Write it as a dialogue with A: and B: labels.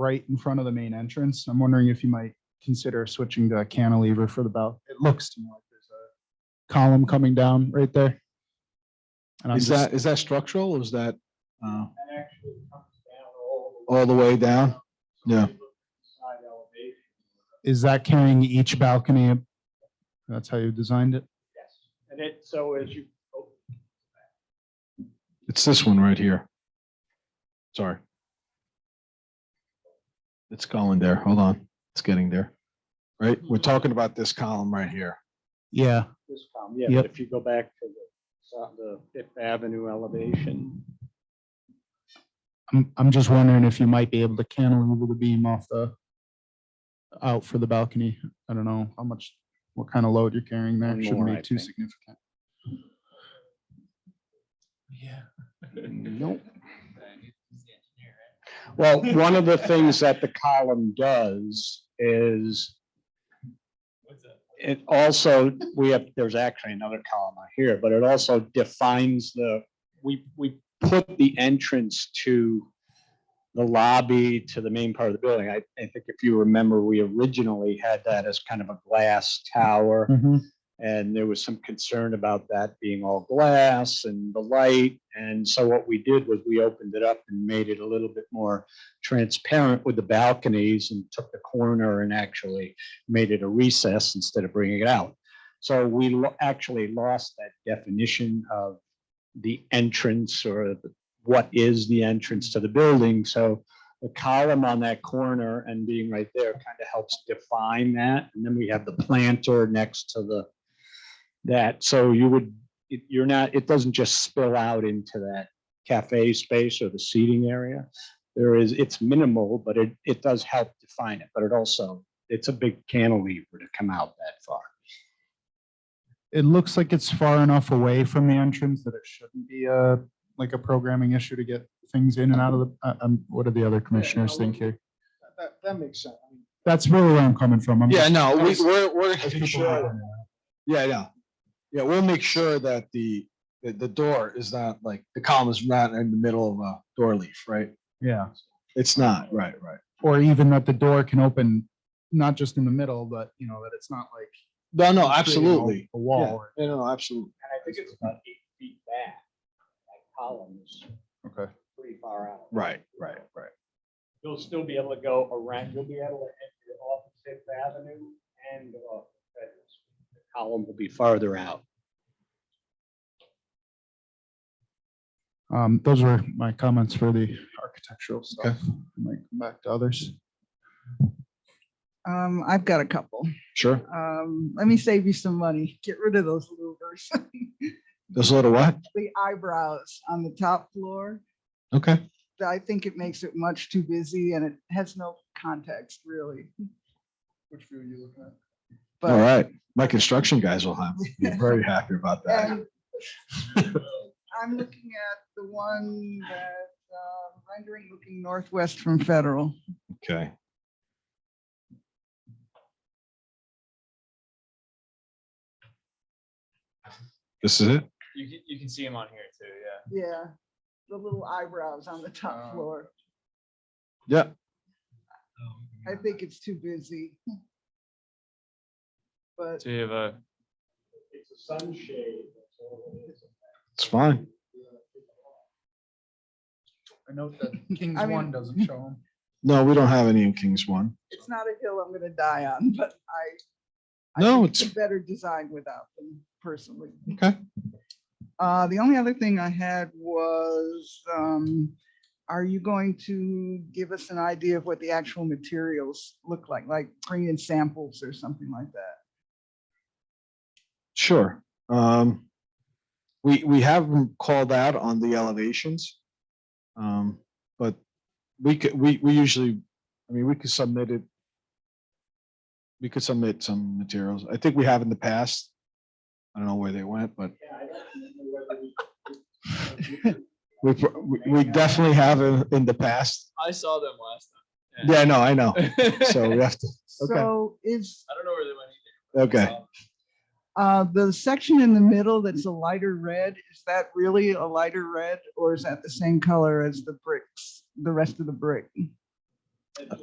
A: right in front of the main entrance. I'm wondering if you might consider switching to a cantilever for the bell. It looks to me like there's a column coming down right there. And I'm
B: Is
A: just,
B: that, is that structural or is that uh,
C: That actually comes down all the way.
B: all the way down? Yeah.
C: Side elevation,
A: is that carrying each balcony? up? That's how you designed it?
C: yes. And it, so as you, oh,
B: It's this one right here. Sorry. It's going there. Hold on. It's getting there. Right? We're talking about this column right here.
A: Yeah.
C: this column, yeah,
A: Yep.
C: but if you go back to the, so- the Fifth Avenue elevation.
A: I'm, I'm just wondering if you might be able to cantilever the beam off the out for the balcony. I don't know how much, what kind of load you're carrying there.
C: One
A: Shouldn't
C: more,
A: be
C: I
A: too
C: think.
A: significant.
D: Yeah.
B: Nope.
C: Well, one of the things that the column does is it also, we have, there's actually another column out here, but it also defines the, we, we put the entrance to the lobby to the main part of the building. I, I think if you remember, we originally had that as kind of a glass tower.
A: Mm-hmm.
C: And there was some concern about that being all glass and the light. And so what we did was we opened it up and made it a little bit more transparent with the balconies and took the corner and actually made it a recess instead of bringing it out. So we lo- actually lost that definition of the entrance or the- what is the entrance to the building. So the column on that corner and being right there kind of helps define that. And then we have the planter next to the that, so you would, it- you're not, it doesn't just spill out into that cafe space or the seating area. There is, it's minimal, but it, it does help define it, but it also, it's a big cantilever to come out that far.
A: It looks like it's far enough away from the entrance that it shouldn't be a, like a programming issue to get things in and out of the, I- I'm, what do the other commissioners think here?
C: That, that makes sense.
A: That's really where I'm coming from. I'm
B: Yeah,
A: just-
B: no, we, we're, we're.
A: Those people are-
B: Yeah, yeah. Yeah, we'll make sure that the, that the door is not like, the column is not in the middle of a door leaf, right?
A: Yeah,
B: It's not, right, right.
A: or even that the door can open, not just in the middle, but you know, that it's not like.
B: No, no,
A: creating a-
B: Oh, absolutely.
A: A
B: Yeah,
A: wall. or-
B: yeah, no, absolutely.
C: And I think it's about eight feet back, that column is
A: Okay.
C: pretty far out.
B: Right, right, right.
C: You'll still be able to go around, you'll be able to enter off of Fifth Avenue and off Federal Street. The Column will be farther out.
A: Um, those were my comments for the architectural stuff. Might come back to others.
E: Um, I've got a couple.
B: Sure.
E: Um, let me save you some money. Get rid of those louvers.
B: There's a little what?
E: The eyebrows on the top floor.
B: Okay.
E: I think it makes it much too busy and it has no context really.
A: Which view are you looking at?
B: All
E: But
B: right. My construction guys will have, be very happy about that.
E: and um, I'm looking at the one that uh, rendering looking northwest from Federal.
B: Okay. This is it?
D: You can, you can see him on here too, yeah.
E: Yeah, the little eyebrows on the top
A: Oh.
E: floor.
B: Yeah.
E: I think it's too busy. But
D: So you have a,
C: It's a sunshade. that's all it is.
B: It's fine.
A: I note that Kings
E: I mean-
A: One doesn't show them.
B: No, we don't have any in Kings One.
E: it's not a hill I'm gonna die on, but I. I
B: No,
E: think
B: it's-
E: a Better design without them personally.
B: Okay.
E: Uh, the only other thing I had was, um, are you going to give us an idea of what the actual materials look like? Like bring in samples or something like that?
B: Sure. Um, we, we have them called out on the elevations. Um, but we could, we, we usually, I mean, we could submit it. We could submit some materials. I think we have in the past. I don't know where they went, but
C: Yeah, I don't remember whether we-
B: we, pr- we- we definitely have in, in the past.
D: I saw them last time.
B: Yeah, no, I know.
D: Yeah.
B: So we have to, Okay.
E: So is,
D: I don't know where they went either.
B: okay.
D: Um,
E: uh, the section in the middle that's a lighter red, is that really a lighter red? Or is that the same color as the bricks, the rest of the brick?